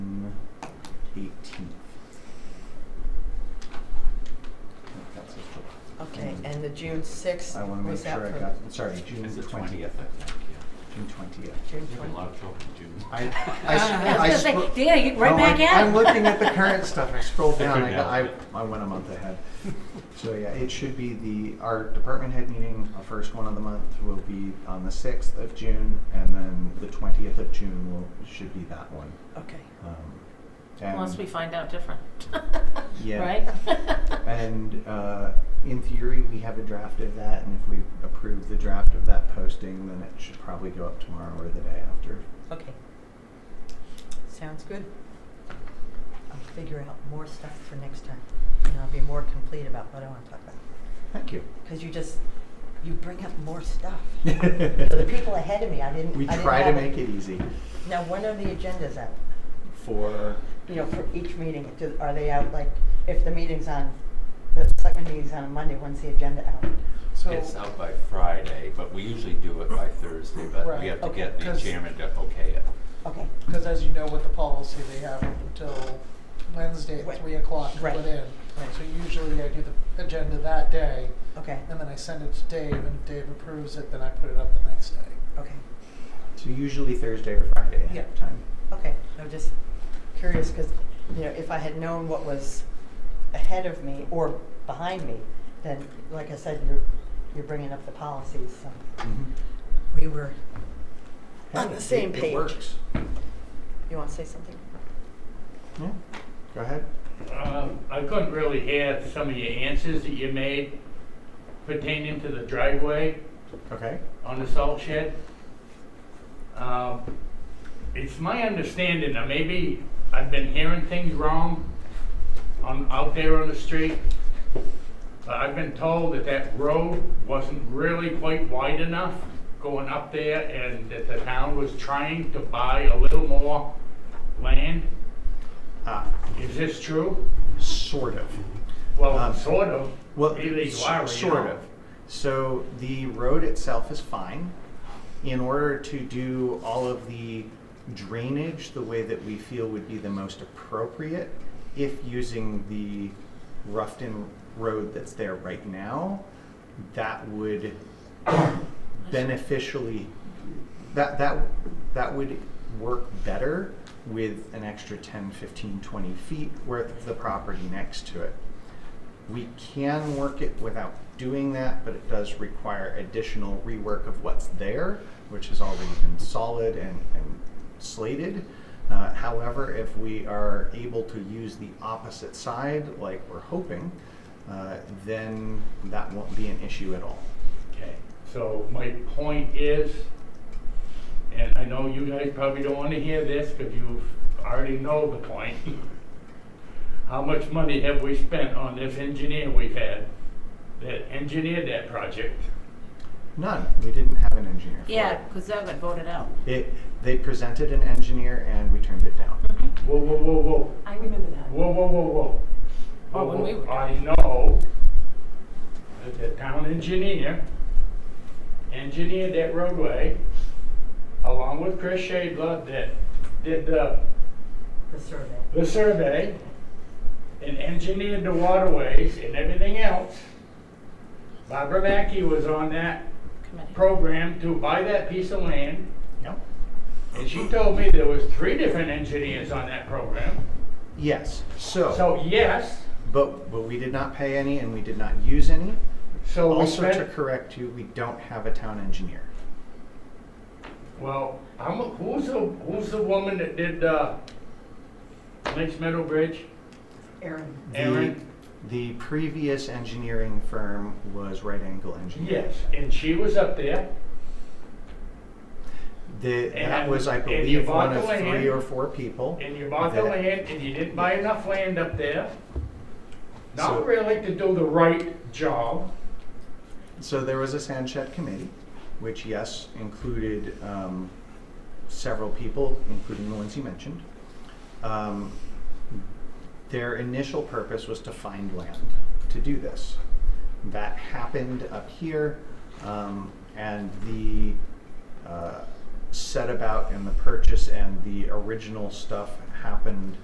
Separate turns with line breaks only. eighteenth. That's his book.
Okay,
And
and the June sixth,
I wanna make
was that
sure I
for-
got, sorry, June
It's the twentieth,
twentieth,
I think, yeah.
June twentieth.
June
There's been a
twentieth?
lot of trouble in June.
I, I, sc-
Ah.
Uh, I
I
was gonna
scro-
say, yeah, you right
No,
back
Oh, I'm-
at it.
I'm looking at the current stuff. I scrolled down. I,
couldn't
got, I,
help it.
I went a month ahead. So yeah, it should be the our department head meeting, our first one of the month, will be on the sixth of June, and then the twentieth of June will should be that one.
Okay,
Um, and,
Unless we find out different.
Yeah.
Right?
and uh, in theory, we have a draft of that, and if we approve the draft of that posting, then it should probably go up tomorrow or the day after.
okay. Sounds good. I'll figure out more stuff for next time, and I'll be more complete about what I wanna talk about.
Thank you.
Cause you just, you bring up more stuff. For the people ahead of me, I didn't,
we
I didn't
try to
have
make it easy
Now, when are the agendas out?
for
You know, for each meeting, do, are they out, like, if the meeting's on, the selectmen meeting's on a Monday, when's the agenda out?
So,
It's out by Friday, but we usually do it by Thursday, but
Right,
we have to
okay.
get the
'Cause-
chairman to okay it.
Okay,
because as you know with the policy, they have up until Wednesday
Right.
at three o'clock to
Right.
put in.
Right.
So usually I do the agenda that day,
okay,
and then I send it to Dave, and if Dave approves it, then I put it up the next day.
okay,
So usually Thursday or Friday ahead of
Yeah.
time.
okay. I'm just curious, because, you know, if I had known what was ahead of me or behind me, then, like I said, you're, you're bringing up the policies, so we were on
Mm-hmm. Hey,
the same
it-
page.
It works.
You want to say something?
Yeah. Go ahead.
Um, I couldn't really hear some of your answers that you made pertaining to the driveway
Okay.
on the salt shed. Um, It's my understanding, now maybe I've been hearing things wrong on, out there on the street, but I've been told that that road wasn't really quite wide enough going up there and that the town was trying to buy a little more land.
Ah,
Is this true?
sort of. Um,
Well, sort of.
Well,
Really,
s-
why were you
sort
not?
of. So the road itself is fine. In order to do all of the drainage the way that we feel would be the most appropriate, if using the Ruffton Road that's there right now, that would beneficially that that that would work better with an extra 10 15 20 feet worth of the property next to it we can work it without doing that but it does require additional rework of what's there which has already been solid and, and slated Uh, however if we are able to use the opposite side like we're hoping uh, then that won't be an issue at all
Okay, so my point is, and I know you guys probably don't want to hear this because you already know the point. How much money have we spent on this engineer we've had that engineered that project?
None. We didn't have an engineer. For
Yeah, because that got voted out.
It. it. They presented an engineer and we turned it down.
Whoa, whoa, whoa, whoa,
I remember that.
whoa, whoa, whoa, whoa.
Well, when we were
I know that the town engineer engineered that roadway along with Chris Shadler that did the
The survey.
the survey and engineered the waterways and everything else. Barbara Mackey was on that
Committee.
program to buy that piece of land,
Yep.
and she told me there was three different engineers on that program.
Yes. So,
So yes,
but but we did not pay any and we did not use any.
so we
also to
spent,
correct you, we don't have a town engineer.
well, I'm, who's the, who's the woman that did, uh, Lakes Meadow Bridge?
Erin.
Erin?
The, the previous engineering firm was Right Angle Engineering.
Yes, and she was up there,
The, that
And-
was, I
and you
believe,
bought
one of
the land.
three or four people.
and you bought the
that-
land, and you didn't buy enough land up there.
So-
Not really to do the right job.
So there was a sand shed committee, which yes, included um, several people, including the ones you mentioned. Um, Their initial purpose was to find land to do this. That happened up here, um, and the uh, set about and the purchase and the original stuff happened